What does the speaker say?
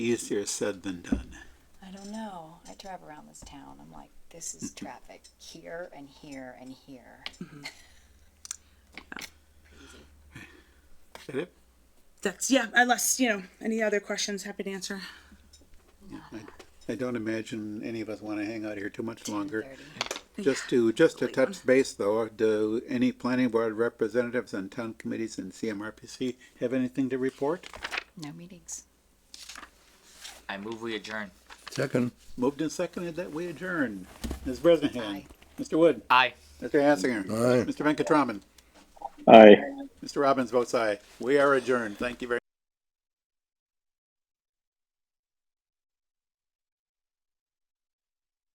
Easier said than done. I don't know. I drive around this town. I'm like, this is traffic here and here and here. Is that it? That's yeah. Unless you know any other questions, happy to answer. I don't imagine any of us want to hang out here too much longer. 10:30. Just to, just to touch base though, do any planning board representatives on town committees and CMRPC have anything to report? No meetings. I move we adjourn. Second. Moved and seconded that we adjourn. Ms. Bresnahan. Aye. Mr. Wood. Aye. Mr. Hassinger. Aye. Mr. Venkataraman. Aye. Mr. Robbins votes aye. We are adjourned. Thank you very